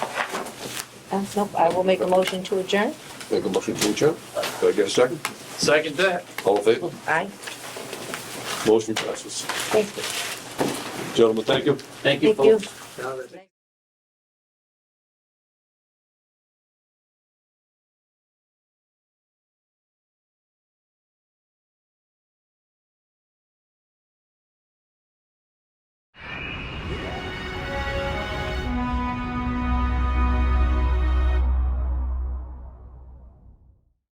Uh, Nope, I will make a motion to adjourn. Make a motion to adjourn. Do I get a second? Second that. All in favor? Aye. Motion passes. Thank you. Gentlemen, thank you. Thank you, Thank you. folks.